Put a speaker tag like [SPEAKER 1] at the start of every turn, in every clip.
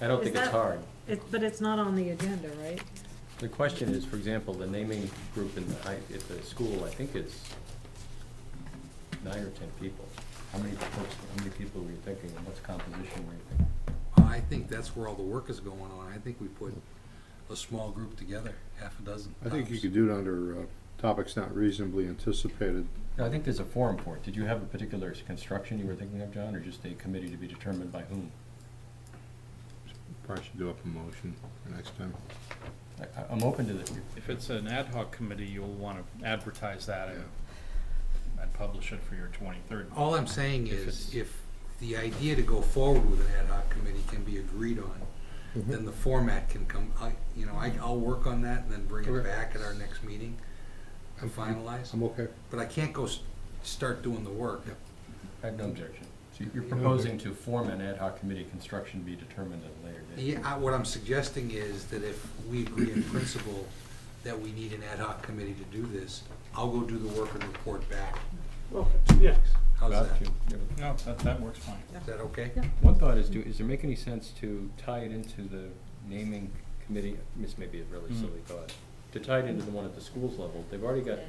[SPEAKER 1] I don't
[SPEAKER 2] Is
[SPEAKER 1] think it's
[SPEAKER 2] that-
[SPEAKER 1] hard.
[SPEAKER 2] It, but it's not on the agenda, right?
[SPEAKER 1] The question is, for example, the naming group in the high, at the school, I think is nine or ten people. How many folks, how many people were you thinking, and what's composition were you thinking?
[SPEAKER 3] I think that's where all the work is going on. I think we put a small group together, half a dozen.
[SPEAKER 4] I think you
[SPEAKER 3] tops.
[SPEAKER 4] could do it under uh, topics not reasonably anticipated.
[SPEAKER 1] No, I think there's a forum for it. Did you have a particular s- construction you were thinking of, John, or just a committee to be determined by whom?
[SPEAKER 4] Probably should do up a motion for next time.
[SPEAKER 1] I, I- I'm open to the,
[SPEAKER 5] If it's an ad hoc committee, you'll want to advertise that and, and publish it for your twenty-third.
[SPEAKER 3] All I'm saying
[SPEAKER 5] If
[SPEAKER 3] is,
[SPEAKER 5] it's-
[SPEAKER 3] if the idea to go forward with an ad hoc committee can be agreed on,
[SPEAKER 4] Mm-hmm.
[SPEAKER 3] then the format can come, I, you know, I, I'll work on that and then bring it
[SPEAKER 4] Okay.
[SPEAKER 3] back at our next meeting to finalize.
[SPEAKER 4] I'm okay.
[SPEAKER 3] But I can't go s- start doing the work.
[SPEAKER 1] I have no objection. So you're proposing to form an ad hoc committee, construction be determined at a later date.
[SPEAKER 3] Yeah, I- what I'm suggesting is that if we agree in principle that we need an ad hoc committee to do this, I'll go do the work and report back.
[SPEAKER 6] Okay, yeah.
[SPEAKER 3] How's
[SPEAKER 1] Bob,
[SPEAKER 3] that?
[SPEAKER 1] do
[SPEAKER 3] Is
[SPEAKER 1] you have a-
[SPEAKER 5] No, that, that works fine.
[SPEAKER 3] that okay?
[SPEAKER 2] Yeah.
[SPEAKER 1] One thought is, do, is there make any sense to tie it into the naming committee, this may be a really
[SPEAKER 5] Hmm.
[SPEAKER 1] silly thought, to tie it into the one at the schools level, they've already got,
[SPEAKER 2] Eh.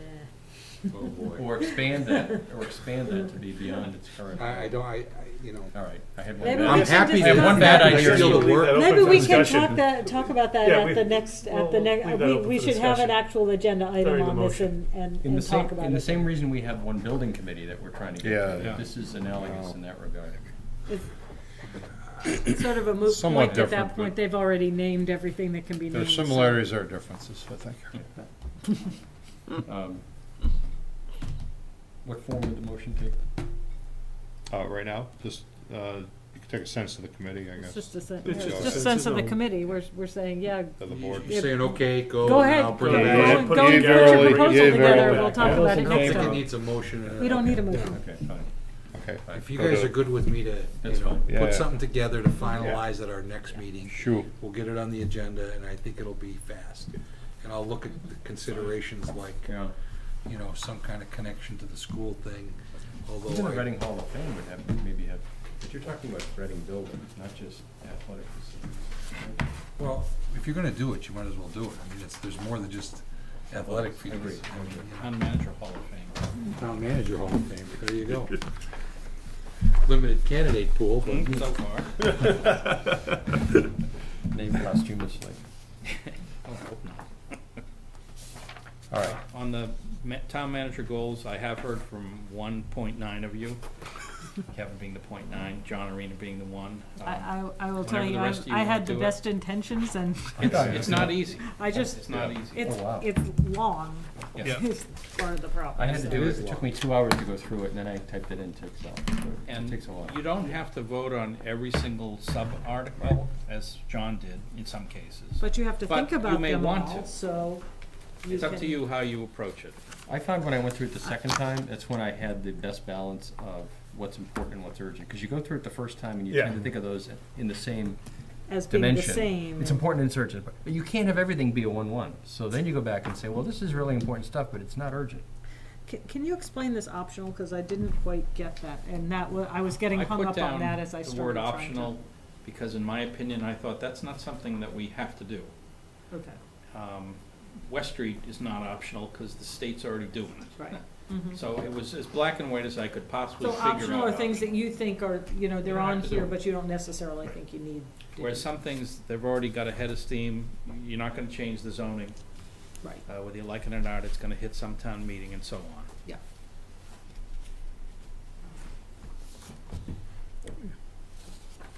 [SPEAKER 3] Oh, boy.
[SPEAKER 1] or expand that, or expand that to be beyond its current.
[SPEAKER 3] I, I don't, I, I, you know.
[SPEAKER 1] All right, I had one.
[SPEAKER 2] Maybe
[SPEAKER 1] bad-
[SPEAKER 2] we
[SPEAKER 3] I'm
[SPEAKER 2] should
[SPEAKER 3] happy
[SPEAKER 1] I have
[SPEAKER 2] discuss
[SPEAKER 1] one
[SPEAKER 2] that.
[SPEAKER 1] bad idea.
[SPEAKER 3] Still the work.
[SPEAKER 6] Open
[SPEAKER 2] Maybe
[SPEAKER 6] for
[SPEAKER 2] we can
[SPEAKER 6] discussion.
[SPEAKER 2] talk that, talk about that
[SPEAKER 6] Yeah,
[SPEAKER 2] at
[SPEAKER 6] we-
[SPEAKER 2] the next, at the
[SPEAKER 6] we'll
[SPEAKER 2] next,
[SPEAKER 6] leave that
[SPEAKER 2] we,
[SPEAKER 6] open
[SPEAKER 2] we
[SPEAKER 6] for
[SPEAKER 2] should have an
[SPEAKER 6] discussion.
[SPEAKER 2] actual agenda item
[SPEAKER 6] During the
[SPEAKER 2] on this
[SPEAKER 6] motion.
[SPEAKER 2] and, and,
[SPEAKER 1] In the
[SPEAKER 2] and talk
[SPEAKER 1] same,
[SPEAKER 2] about it.
[SPEAKER 1] in the same reason we have one building committee that we're trying to get
[SPEAKER 4] Yeah.
[SPEAKER 1] to,
[SPEAKER 5] Yeah.
[SPEAKER 1] that this is analogous in that regard.
[SPEAKER 2] It's Sort of a moot
[SPEAKER 4] Somewhat
[SPEAKER 2] point at
[SPEAKER 4] different,
[SPEAKER 2] that
[SPEAKER 4] but-
[SPEAKER 2] point, they've already named everything that can be named.
[SPEAKER 4] There are
[SPEAKER 2] so-
[SPEAKER 4] similarities, there are differences, I think.
[SPEAKER 1] Um, What form would the motion take?
[SPEAKER 7] Uh, right now, just, uh, you can take a sense of the committee, I
[SPEAKER 2] It's
[SPEAKER 7] guess,
[SPEAKER 2] just a sense,
[SPEAKER 6] It's
[SPEAKER 2] it's
[SPEAKER 6] just a
[SPEAKER 2] just
[SPEAKER 6] sense
[SPEAKER 2] sense of the
[SPEAKER 6] of-
[SPEAKER 2] committee, we're, we're saying, yeah,
[SPEAKER 7] of the board.
[SPEAKER 3] You're saying, okay, go.
[SPEAKER 2] go
[SPEAKER 3] and
[SPEAKER 2] ahead,
[SPEAKER 3] I'll
[SPEAKER 2] go,
[SPEAKER 3] bring
[SPEAKER 2] go
[SPEAKER 6] Yeah, yeah,
[SPEAKER 2] and
[SPEAKER 6] put
[SPEAKER 2] go
[SPEAKER 6] it
[SPEAKER 2] and
[SPEAKER 6] together,
[SPEAKER 2] get your
[SPEAKER 6] put it
[SPEAKER 2] proposal
[SPEAKER 7] together,
[SPEAKER 2] together,
[SPEAKER 7] yeah.
[SPEAKER 2] we'll talk
[SPEAKER 6] All
[SPEAKER 2] about
[SPEAKER 6] those
[SPEAKER 2] it
[SPEAKER 6] in
[SPEAKER 3] I don't
[SPEAKER 2] next
[SPEAKER 3] think it
[SPEAKER 2] time.
[SPEAKER 3] needs a motion. and a-
[SPEAKER 2] We don't need a motion.
[SPEAKER 1] Okay, fine.
[SPEAKER 7] Okay,
[SPEAKER 3] If you
[SPEAKER 7] Okay.
[SPEAKER 3] guys are good with me to,
[SPEAKER 1] That's
[SPEAKER 3] you know,
[SPEAKER 1] fine.
[SPEAKER 7] Yeah, yeah.
[SPEAKER 3] put something together to finalize at our next meeting,
[SPEAKER 7] sure.
[SPEAKER 3] we'll get it on the agenda, and I think it'll be fast. And I'll look at the considerations like,
[SPEAKER 1] Yeah.
[SPEAKER 3] you know, some kind of connection to the school thing,
[SPEAKER 1] Even
[SPEAKER 3] although
[SPEAKER 1] the
[SPEAKER 3] I,
[SPEAKER 1] Reading Hall of Fame would have, maybe have, but you're talking about Reading buildings, not just athletic facilities.
[SPEAKER 3] well, if you're gonna do it, you might as well do it. I mean, it's, there's more than just athletic
[SPEAKER 1] I agree.
[SPEAKER 3] fields.
[SPEAKER 5] Town manager hall of fame.
[SPEAKER 3] Town manager hall of fame. There you go. Limited candidate pool, but.
[SPEAKER 1] Mm-hmm.
[SPEAKER 5] So far.
[SPEAKER 1] Named posthumously.
[SPEAKER 5] I hope not.
[SPEAKER 1] All right.
[SPEAKER 5] On the ma- town manager goals, I have heard from one point nine of you, Kevin being the point nine, John Arena being the one. Um,
[SPEAKER 2] I, I, I will
[SPEAKER 5] Whenever
[SPEAKER 2] tell
[SPEAKER 5] the
[SPEAKER 2] you, I've-
[SPEAKER 5] rest of you
[SPEAKER 2] I
[SPEAKER 5] wanna
[SPEAKER 2] had the
[SPEAKER 5] do it.
[SPEAKER 2] best intentions and
[SPEAKER 5] It's, Um, it's not easy.
[SPEAKER 2] I
[SPEAKER 5] It's
[SPEAKER 2] just,
[SPEAKER 5] not easy.
[SPEAKER 2] it's,
[SPEAKER 1] Oh, wow.
[SPEAKER 2] it's long,
[SPEAKER 5] Yeah.
[SPEAKER 2] is part of the problem.
[SPEAKER 1] I had to
[SPEAKER 2] so.
[SPEAKER 1] do it, it took me two hours to go through it, and then I typed it into Excel. so It
[SPEAKER 5] And
[SPEAKER 1] takes a while.
[SPEAKER 5] you don't have to vote on every single sub-article, as John did in some cases.
[SPEAKER 2] But you have to
[SPEAKER 5] But
[SPEAKER 2] think
[SPEAKER 5] you
[SPEAKER 2] about
[SPEAKER 5] may
[SPEAKER 2] them
[SPEAKER 5] want
[SPEAKER 2] all,
[SPEAKER 5] to.
[SPEAKER 2] so. you
[SPEAKER 5] It's up
[SPEAKER 2] can-
[SPEAKER 5] to you how you approach it.
[SPEAKER 1] I found when I went through it the second time, that's when I had the best balance of what's important and what's urgent. Because you go through it the first time and you tend
[SPEAKER 6] Yeah.
[SPEAKER 1] to think of those in the same
[SPEAKER 2] As being the
[SPEAKER 1] dimension.
[SPEAKER 2] same.
[SPEAKER 1] It's important and it's urgent, but but you can't have everything be a one-one. So then you go back and say, well, this is really important stuff, but it's not urgent.
[SPEAKER 2] Can, can you explain this optional, cause I didn't quite get that, and that was, I was getting
[SPEAKER 5] I
[SPEAKER 2] hung
[SPEAKER 5] put
[SPEAKER 2] up on
[SPEAKER 5] down
[SPEAKER 2] that as I
[SPEAKER 5] the
[SPEAKER 2] started
[SPEAKER 5] word
[SPEAKER 2] trying to.
[SPEAKER 5] optional, because in my opinion, I thought that's not something that we have to do.
[SPEAKER 2] Okay,
[SPEAKER 5] Um, West Street is not optional, because the state's already doing it.
[SPEAKER 2] right, mhm.
[SPEAKER 5] So it was as black and white as I could possibly
[SPEAKER 2] So
[SPEAKER 5] figure out.
[SPEAKER 2] optional are things that you think are, you know, they're
[SPEAKER 5] don't
[SPEAKER 2] on
[SPEAKER 5] have to do
[SPEAKER 2] here,
[SPEAKER 5] it.
[SPEAKER 2] but you don't necessarily think you need. to
[SPEAKER 5] Whereas
[SPEAKER 2] do.
[SPEAKER 5] some things, they've already got a head of steam, you're not gonna change the zoning,
[SPEAKER 2] Right,
[SPEAKER 5] uh, whether you like it or not, it's gonna hit some town meeting and so on.
[SPEAKER 2] yeah.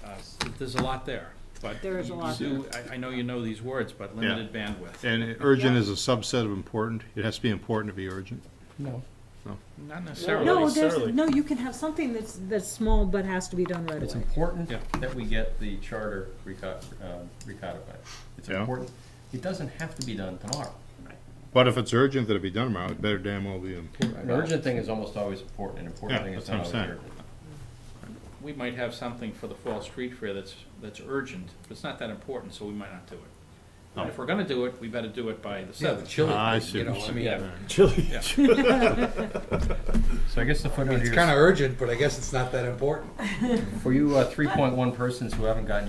[SPEAKER 5] Uh, s- There's a lot there, but.
[SPEAKER 2] There is a
[SPEAKER 5] you-
[SPEAKER 2] lot
[SPEAKER 5] you do- I, I know you know these words, but limited bandwidth.
[SPEAKER 7] And urgent is a subset of important, it has to be important to be urgent.
[SPEAKER 1] No.
[SPEAKER 5] Not necessarily.
[SPEAKER 2] No, there's,
[SPEAKER 6] necessarily.
[SPEAKER 2] no, you can have something that's, that's small but has to be done right away.
[SPEAKER 1] It's important
[SPEAKER 5] Yeah.
[SPEAKER 1] that we get the charter reco- um, recodified. It's
[SPEAKER 7] Yeah.
[SPEAKER 1] important. It doesn't have to be done tomorrow.
[SPEAKER 7] But if it's urgent that it be done tomorrow, it better damn well be important.
[SPEAKER 1] An urgent thing is almost always important, an important
[SPEAKER 7] Yeah,
[SPEAKER 1] thing is
[SPEAKER 7] that's
[SPEAKER 1] not always
[SPEAKER 7] what I'm saying.
[SPEAKER 1] urgent.
[SPEAKER 5] We might have something for the fall street fair that's, that's urgent, but it's not that important, so we might not do it. And if we're gonna do it, we better do it by the
[SPEAKER 3] Yeah, the
[SPEAKER 5] seventh.
[SPEAKER 3] chili,
[SPEAKER 7] I
[SPEAKER 3] you
[SPEAKER 7] see
[SPEAKER 3] know,
[SPEAKER 7] what
[SPEAKER 3] I
[SPEAKER 7] you
[SPEAKER 3] mean,
[SPEAKER 5] Yeah.
[SPEAKER 6] Chili.
[SPEAKER 1] So I guess the footnote
[SPEAKER 3] it's
[SPEAKER 1] here
[SPEAKER 3] kinda urgent, but I guess it's not that important.
[SPEAKER 1] uh, is, for you three point one persons who haven't gotten your